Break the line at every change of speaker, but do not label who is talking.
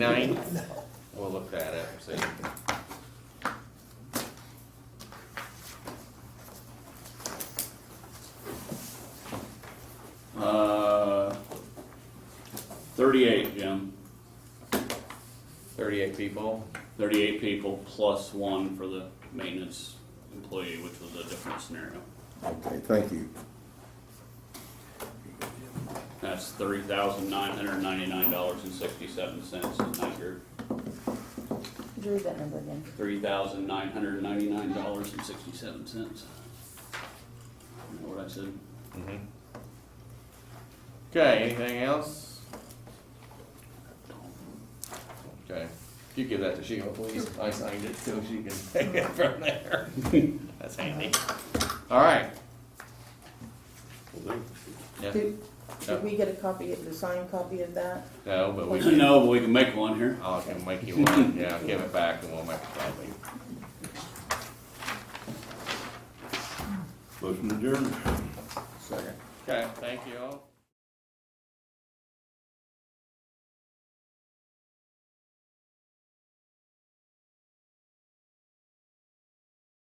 9th, we'll look that up, see.
Uh, Thirty-eight, Jim.
38 people,
Thirty-eight people plus one for the maintenance employee, which was a different scenario.
Okay, thank you.
That's three thousand nine hundred ninety-nine dollars and sixty-seven cents in that group.
Drew that number again.
Three thousand nine hundred ninety-nine dollars and sixty-seven cents. Know what I said?
Mm-hmm. okay, anything else? Okay, you give that to Sheila, please, I signed it, so she can take it from there. That's handy. All right. Yeah,
Did,
Yeah.
did we get a copy, of the signed copy of that?
no, but we can,
No, but we can make one here.
I can make you one, yeah, give it back and we'll make a copy.
Motion adjourned.
Second. Okay, thank you all.